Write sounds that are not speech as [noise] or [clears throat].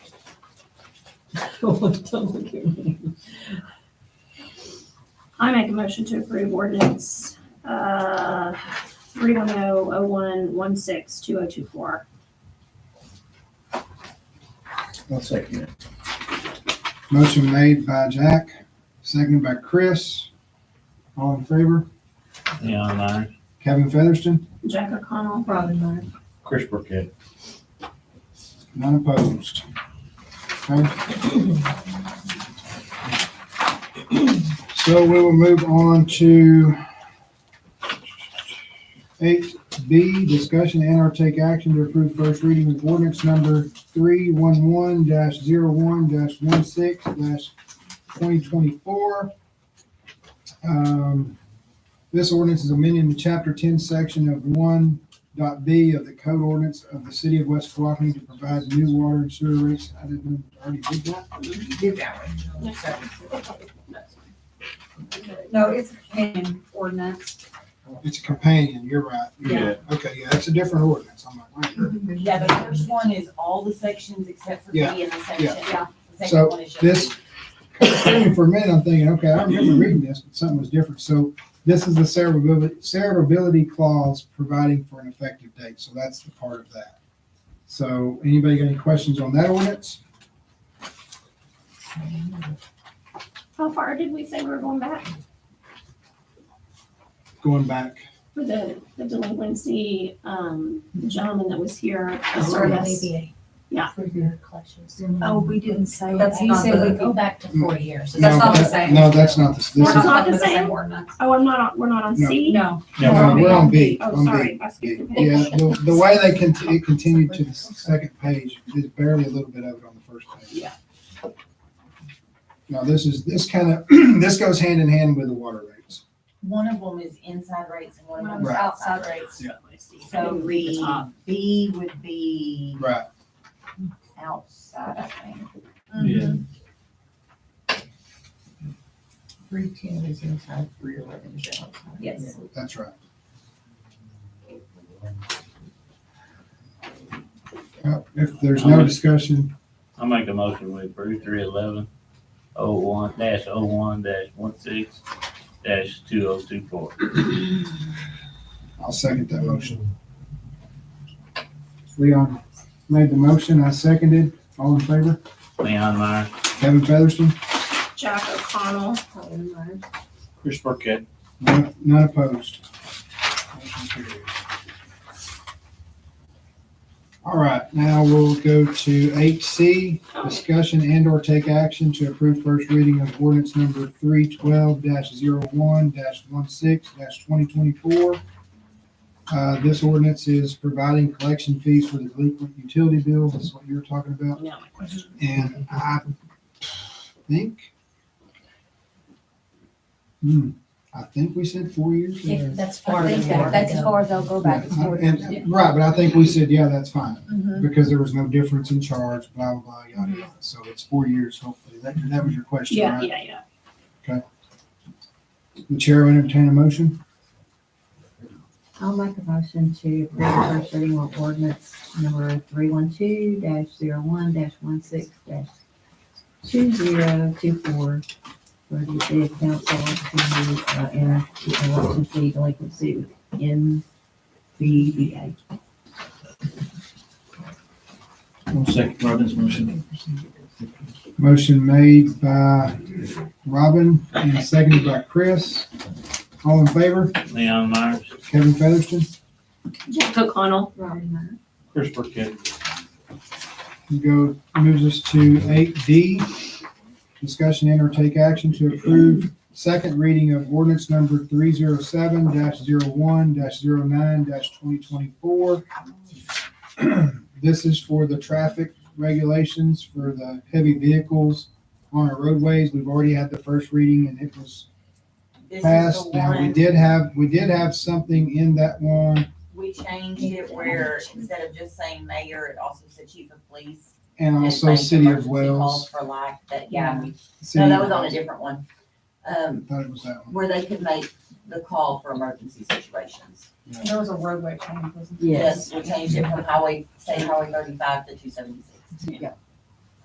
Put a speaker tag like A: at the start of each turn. A: go on public hearing.
B: I make a motion to approve ordinance, uh, three one oh oh one one six two oh two four.
C: I'll second it. Motion made by Jack, seconded by Chris. All in favor?
D: Leon Meyer,
C: Kevin Featherston,
B: Jack O'Connell,
A: Robin Meyer.
D: Chris Burkett.
C: none opposed. Okay. So we will move on to eight B, discussion and or take action to approve first reading of ordinance number three one one dash zero one dash one six dash twenty twenty-four. Um, this ordinance is amending the chapter ten, section of one dot B of the code ordinance of the city of West Flocney to provide new water and sewer rates. I didn't already did that.
E: Did that one. No, it's a canon ordinance.
C: Uh, It's a companion, you're right.
E: Yeah.
C: Okay, yeah, that's a different ordinance. I'm like, wait.
F: Yeah, the first one is all the sections except for B
C: Yeah,
F: in the section.
E: yeah.
F: The second
C: So
F: one is just-
C: this, [coughs] for a minute, I'm thinking, okay, I remember reading this, but something was different. So this is the severability, severability clause providing for an effective date. So that's the part of that. So anybody got any questions on that ordinance?
B: how far did we say we were going back
C: Going back,
B: for the, the delinquency, um, gentleman that was here? the
A: That's
B: service? Yeah.
A: For your collections.
G: Oh, we didn't say.
E: That's
G: that.
E: you said we
G: Go back to four years.
C: Mm. No,
E: That's not the
C: that-
E: same.
C: no, that's not the, this
B: We're
C: is,
B: not
E: Talking
B: the
E: about
B: same?
E: ordinance.
B: Oh, I'm not on, we're not on C?
E: No.
C: no,
B: we're on
C: we're on B.
B: Oh,
C: on B.
B: sorry, I skipped a
C: Yeah,
B: page.
C: the, the way they can, it continued to the second page, there's barely a little bit of it on the first page.
B: Yeah.
C: Now, this is, this kind of, [clears throat] this goes hand in hand with the water rates.
F: One of them is inside rates and one of them is
C: Right.
F: outside rates.
B: I
F: So
B: didn't read the top.
F: the B would be
C: Right.
F: outside, I think. Mm.
D: Yeah.
G: Three ten is inside, three eleven is outside.
F: Yes.
C: That's right. Uh, If there's no discussion,
D: I make a motion we approve three eleven oh one dash oh one dash one six dash two oh two four.
C: I'll second that motion. Leon made the motion, I seconded, all in favor?
D: Leon Meyer,
C: Kevin Featherston,
B: Jack O'Connell,
G: Robin Meyer.
D: Chris Burkett.
C: none none opposed. Motion carries. All right, now we'll go to eight C, discussion and or take action to approve first reading of ordinance number three twelve one one six twenty twenty-four. Uh, this ordinance is providing collection fees for the delinquent utility bills, that's what you were talking about,
B: now my question.
C: and I think. Hmm, I think we said four years.
G: Yeah,
C: or-
G: That's
E: I
G: far.
E: think that- That's as far as they'll go back. It's more than-
C: And- Right, but I think we said, yeah, that's fine because there was no difference in charge, blah, blah, blah, yada, yada. So it's four years, hopefully. That, that was your question,
B: Yeah,
C: right?
B: yeah, yeah.
C: The chair would entertain a motion.
H: I'll make a motion to approve first reading of ordinance number three one two dash zero one dash one six dash two zero two four for the city council to, uh, enter the election fee delinquency in VBA.
D: One second, Robin's motion.
C: Motion made by Robin and seconded by Chris. All in favor?
D: Leon Meyer,
C: Kevin Featherston,
B: Jack O'Connell,
G: Robin Meyer.
D: Chris Burkett.
C: you go, moves us to eight D. Discussion and or take action to approve second reading of ordinance number three zero seven one one-9 twenty twenty-four. [clears throat] This is for the traffic regulations for the heavy vehicles on our roadways. We've already had the first reading and it was
F: This is the
C: passed. Now, we
F: one,
C: did have, we did have something in that one,
F: we changed it where instead of just saying mayor, it also said chief of police.
C: and
F: and
C: also
F: like
C: City of
F: emergency calls
C: Wells.
F: For like, that, yeah, we-
C: City
F: no,
C: of
F: that was on a
C: Wells.
F: different one. Um,
C: Thought it was that one.
F: where they could make the call for emergency situations.
E: There was a roadway change, wasn't
F: Yes, we changed it from highway, state highway thirty-five to two seventy-six.
G: Yeah.